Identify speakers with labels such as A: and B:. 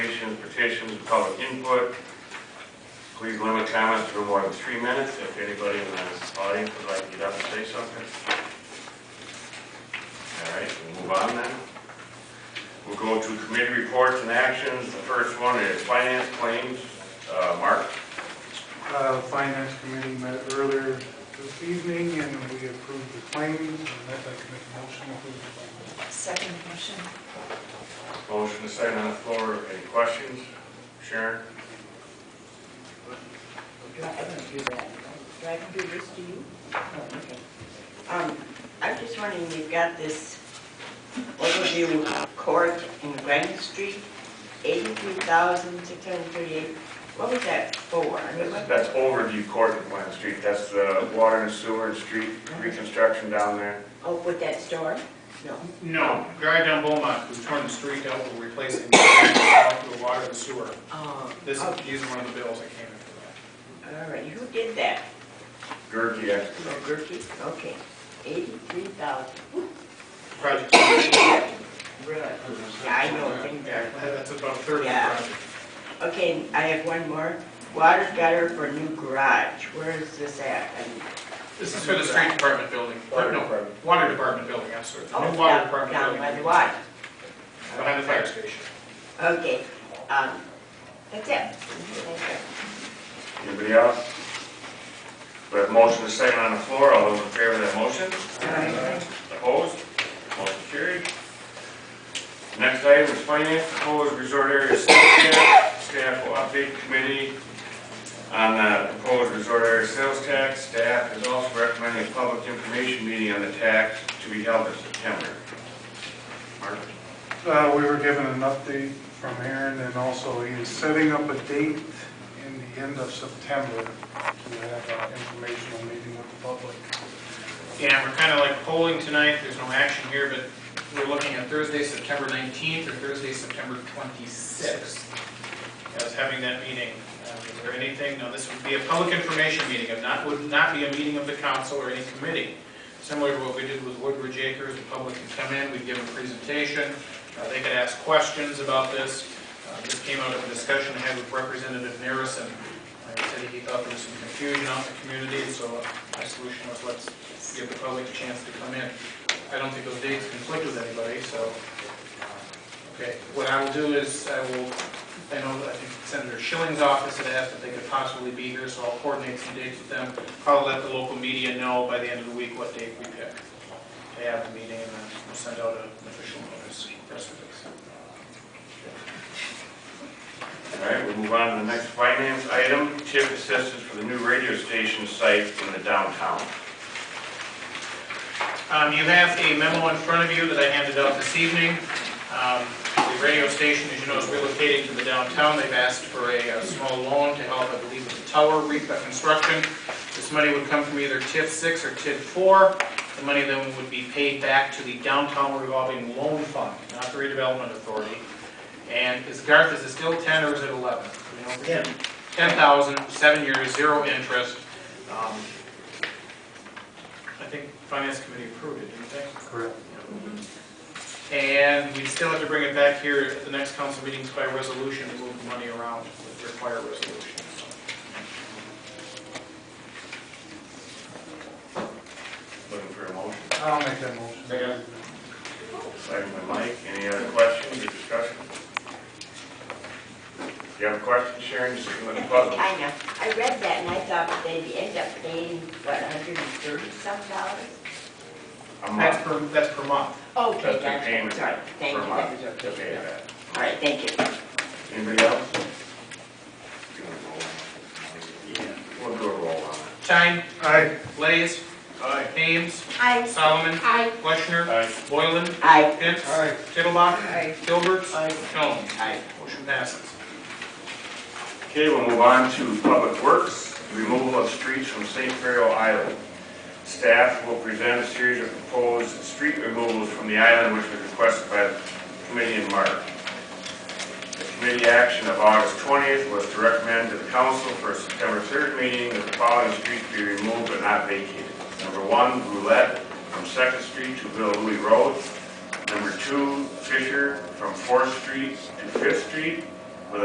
A: resolutions, petitions, and public input. Please limit comments to no more than three minutes. If anybody in the audience would like to get up and say something. All right, we'll move on then. We'll go to committee reports and actions. The first one is finance claims. Uh, Mark?
B: Uh, Finance Committee met earlier this evening and we approved the claims. And I'd like to make a motion to approve the claims.
C: Second motion.
A: Motion is second on the floor. Any questions? Sharon?
D: I don't do that. Do I do this to you? Oh, okay. Um, I'm just wondering, you've got this overview of court in Granite Street, eighty-three thousand, six hundred and thirty-eight. What was that for? I mean,
A: That's
D: what-
A: that's overview court in Glen Street. That's the water and sewer and street reconstruction down there.
D: Oh, with that store? No.
E: No, Gary John Beaumont, who's torn the street out, will replace it with the water and sewer.
D: Oh,
E: This is,
D: all
E: these are one of the bills that came in for
D: right, who did that?
A: Gerke
D: Oh,
A: Excavating.
D: Gerke? Okay, eighty-three thousand.
E: that. Project, Yeah,
D: Really? I know things are
E: that's about a third of the
D: Yeah.
E: project.
D: Okay, I have one more. Water gutter for new garage. Where is this at? And-
E: This is for the street department building, or no, water department building, I'm sorry, the
D: Oh,
E: new water
D: down-
E: department
D: Down
E: building.
D: by the water.
E: Behind the fire station.
D: Okay, um, that's it. Thank you.
A: Anybody else? We have motion is second on the floor. All those in favor of that motion? Opposed? Motion carried. Next item is finance, proposed resort area sales tax. Staff will update committee on the proposed resort area sales tax. Staff is also recommending a public information meeting on the tax to be held in September. Mark?
B: Uh, We were given an update from Aaron and also he is setting up a date in the end of September to have an informational meeting with the public.
E: Yeah, we're kind of like polling tonight, there's no action here, but we're looking at Thursday, September 19th or Thursday, September 26th. I was having that meeting, Uh, is there anything, no, this would be a public information meeting, it not, would not be a meeting of the council or any committee. Similar to what we did with Woodbridge Acres, the public could come in, we'd give a presentation, uh, they could ask questions about this. Uh, This came out of a discussion I had with Representative Narison, Uh, he said he thought there was some confusion out in the community, so my solution was let's give the public a chance to come in. I don't think those dates conflict with anybody, so, uh, okay. What I will do is, I will, I know, that I think Senator Schilling's office had asked if they could possibly be here, so I'll coordinate some dates with them. I'll let the local media know by the end of the week what date we pick to have the meeting, and then we'll send out an official notice, press release.
A: All right, we'll move on to the next finance item, TIF assistance for the new radio station site in the downtown.
E: Um, You have a memo in front of you that I handed out this evening. Um, The radio station, as you know, is relocating to the downtown. They've asked for a uh, small loan to help, I believe, with the tower reconstruction. This money would come from either TIF 6 or TIF 4. The money then would be paid back to the downtown revolving loan fund, not the redevelopment authority. And is Garth, is it still 10 or is it 11? We don't forget. 10,000, seven years, zero interest. Um, I think Finance Committee approved it, didn't they?
B: Correct.
E: And we still have to bring it back here at the next council meetings by resolution to move the money around, require resolution.
A: Looking for a motion.
B: I'll make that motion.
E: Second.
A: Second by Mike, any other questions or discussion? If you have a question, Sharon, just give me a buzzer.
D: Kinda. I read that and I thought that they'd end up paying, what, hundred and thirty some dollars?
A: A
E: That's
A: month
E: per, that's per month.
D: Okay,
A: That's the
D: gotcha.
A: Oh, payment
D: Sorry, thank
A: per
D: you. That
A: month
D: was
A: to pay
D: okay.
A: that.
D: All right, thank you.
A: Anybody else? We'll do a roll on it.
E: Chang,
B: Aye.
E: Blaze. Ames.
F: Aye.
E: Solomon.
F: Aye.
E: Washner.
A: Aye.
E: Boylan.
D: Aye.
E: Pitts.
B: Aye.
E: Tittlebach.
D: Aye.
E: Gilbert.
D: Aye.
E: Jones.
D: Aye.
E: Motion passes.
A: Okay, we'll move on to Public Works, removal of streets from St. Ferro Island. Staff will present a series of proposed street removals from the island which was requested by the committee in March. The committee action of August 20th was to recommend to the council for a September 3rd meeting that the following streets be removed but not vacated. Number one, Roulette from Second Street to Bill Louis Road. Number two, Fisher from Fourth Street to Fifth Street.